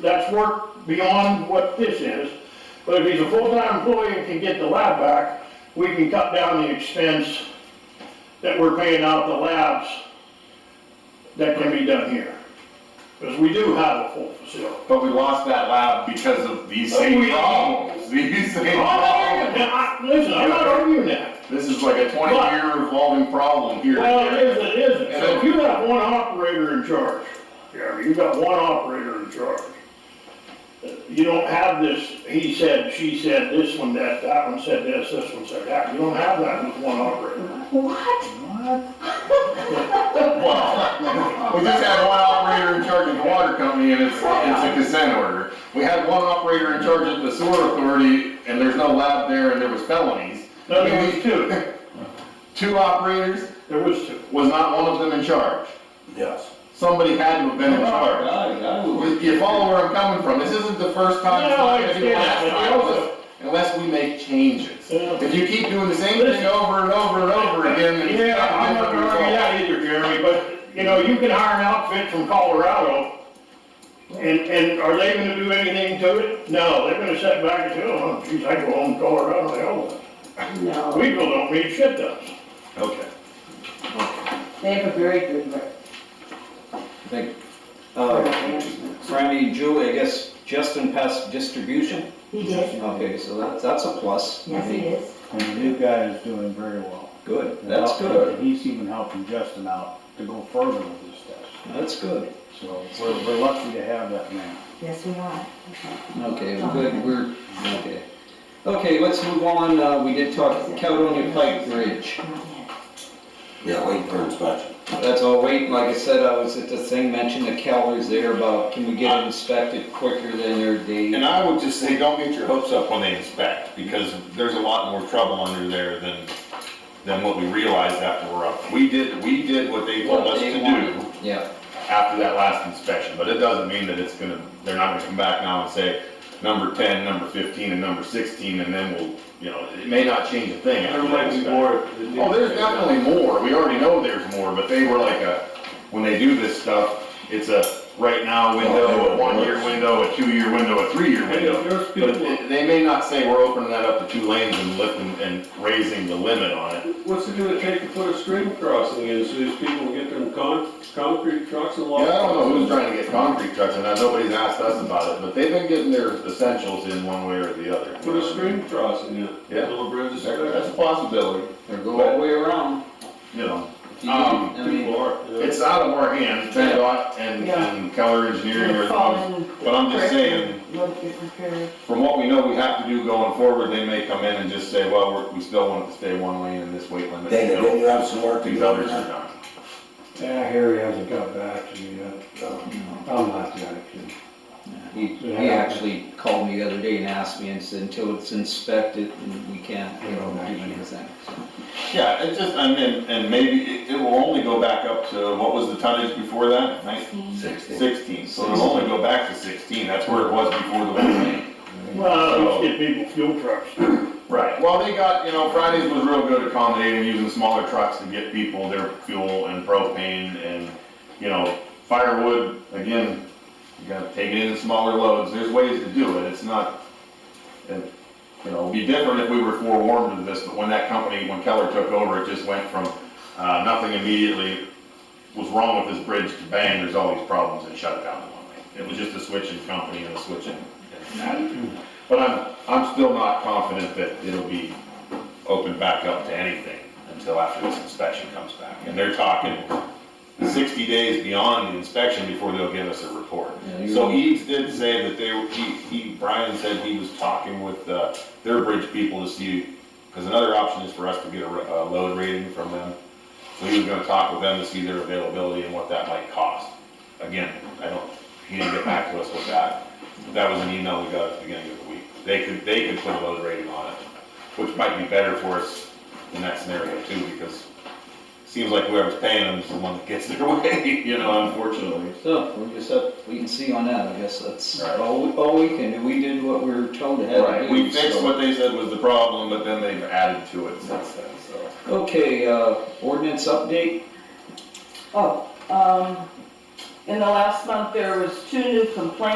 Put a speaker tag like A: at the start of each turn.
A: that's work beyond what this is. But if he's a full-time employee and can get the lab back, we can cut down the expense that we're paying out the labs that can be done here. Because we do have a full facility.
B: But we lost that lab because of these same
A: We-
B: problems, these same
A: Oh, I-
B: problems.
A: I- Listen, I'm not arguing that.
B: This is like a twenty-year revolving problem here.
A: Well, it is, it isn't. So if you got one operator in charge, Jeremy, you got one operator in charge. You don't have this, he said, she said, this one, that, that one said this, this one said that. You don't have that with one operator.
C: What?
B: Well, we just had one operator in charge of the water company and it's, it's a consent order. We had one operator in charge of the sewer authority and there's no lab there and there was felonies.
A: No, there was two.
B: Two operators,
A: There was two.
B: was not one of them in charge.
A: Yes.
B: Somebody had to have been in charge. You follow where I'm coming from, this isn't the first time, it's
A: No,
B: not
A: I
B: gonna be the
A: understand
B: last
A: that, but
B: time,
A: also-
B: unless- unless we make changes.
A: Yeah.
B: If you keep doing the same thing over and over and over again, then you
A: Yeah, I'm
B: have
A: not gonna argue that either, Jeremy, but, you know, you can hire an outfit from Colorado. And, and are they gonna do anything to it? No, they're gonna sit back and say, oh, geez, I go home to Colorado, they own it.
C: No,
A: People don't need shit done.
B: Okay.
C: they have a very good rep.
D: I think,
B: Oh,
D: uh, Franny, Julie, I guess Justin passed distribution?
C: He did,
D: Okay, so that's, that's a plus. I
C: yes, he
D: mean,
C: is.
E: And the new guy is doing very well.
D: Good,
E: And
D: that's
E: helping-
D: good,
E: and He's even helping Justin out to go further with this stuff.
D: that's good.
E: So we're, we're lucky to have that man.
C: Yes, we are.
D: Okay, we're good, we're, okay. Okay, let's move on, uh, we did talk Caledonia Pike Bridge.
C: Not yet.
F: Yeah, wait for inspection.
D: That's all wait, like I said, I was at the thing, mentioned the Calvary's there about, can we get it inspected quicker than their
B: And
D: date?
B: I would just say, don't get your hopes up when they inspect, because there's a lot more trouble under there than, than what we realized after we're up. We did, we did what they told us
D: What they
B: to do
D: wanted. Yeah,
B: after that last inspection, but it doesn't mean that it's gonna, they're not gonna come back now and say, number ten, number fifteen, and number sixteen, and then we'll, you know, it may not change a thing. after
G: There
B: that
G: might be
B: inspection.
G: more.
B: Oh, there's definitely more, we already know there's more, but they were like a, when they do this stuff, it's a right now window, a one-year window, a two-year window, a three-year
G: Hey,
B: window.
G: there's people-
B: But they- they may not say we're opening that up to two lanes and lifting and raising the limit on it.
G: What's it gonna take to put a stream crossing in, so these people get them con, concrete trucks and
B: Yeah, I
G: log?
B: don't know who's trying to get concrete trucks and that, nobody's asked us about it, but they've been getting their essentials in one way or the other.
G: Put a stream crossing in,
B: Yeah.
G: little bridge is
B: There- That's a possibility,
D: or go all the way around.
B: you know,
D: If you-
B: Um,
D: I mean,
G: People are, you know.
B: it's out of our hands, PennDOT and, and Keller Engineering are the ones
C: Fallen
B: but I'm just
C: brick
B: saying-
C: Would get repaired.
B: from what we know we have to do going forward, they may come in and just say, well, we're- we still want it to stay one lane in this weight limit.
F: Dana,
B: you know,
F: didn't you have some work to
B: These
F: do on
B: others are
F: that?
B: not.
E: Yeah, Harry hasn't got back to me yet.
B: Oh,
E: I'm not the other kid.
D: He, he actually called me the other day and asked me and said, until it's inspected, and we can't, you know, do anything.
B: Yeah, it just, I mean, and maybe it, it will only go back up to, what was the tonnage before that? Nineteen?
F: Sixteen.
B: Sixteen, so it'll only go back to sixteen, that's where it was before the one lane.
A: Well, let's get people fuel trucks.
B: Right, well, they got, you know, Fridays was real good accommodating, using smaller trucks to get people their fuel and propane and, you know, firewood, again, you gotta take it in smaller loads, there's ways to do it, it's not, it, you know, it'd be different if we were forewarned of this, but when that company, when Keller took over, it just went from, uh, nothing immediately was wrong with this bridge to bang, there's all these problems and shut it down in one lane. It was just a switching company and a switching attitude. But I'm, I'm still not confident that it'll be opened back up to anything until after this inspection comes back. And they're talking sixty days beyond the inspection before they'll give us a report.
D: Yeah, you-
B: So Eads did say that they, were- he, he, Brian said he was talking with, uh, their bridge people to see, because another option is for us to get a, ra- a load rating from them. So he was gonna talk with them to see their availability and what that might cost. Again, I don't, he didn't get back to us with that. That was an email we got at the beginning of the week. They could, they could put a load rating on it, which might be better for us in that scenario too, because it seems like whoever's paying them is the one that gets their way, you know, unfortunately.
D: So, we're just up, we can see on that, I guess that's
B: Right.
D: all, we- all we can do, we did what we were told to have to
B: Right,
D: do.
B: we fixed
D: so-
B: what they said was the problem, but then they've added to it since then, so.
D: Okay, uh, ordinance update,
H: Oh, um, in the last month, there was two new complaints